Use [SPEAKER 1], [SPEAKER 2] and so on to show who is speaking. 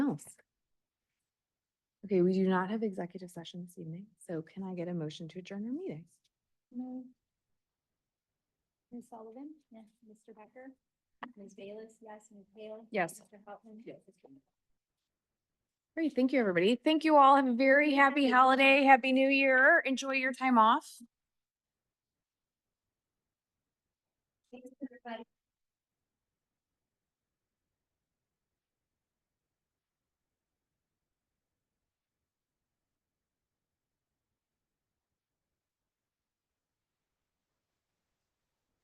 [SPEAKER 1] Okay, we do not have executive session this evening, so can I get a motion to adjourn our meeting?
[SPEAKER 2] Move. Ms. Sullivan? Yes. Mr. Becker? Ms. Bayless? Yes. Ms. Hale?
[SPEAKER 1] Yes.
[SPEAKER 2] Mr. Hoffman? Yes.
[SPEAKER 1] Great, thank you, everybody. Thank you all. Have a very happy holiday, happy new year. Enjoy your time off.
[SPEAKER 2] Thanks, everybody.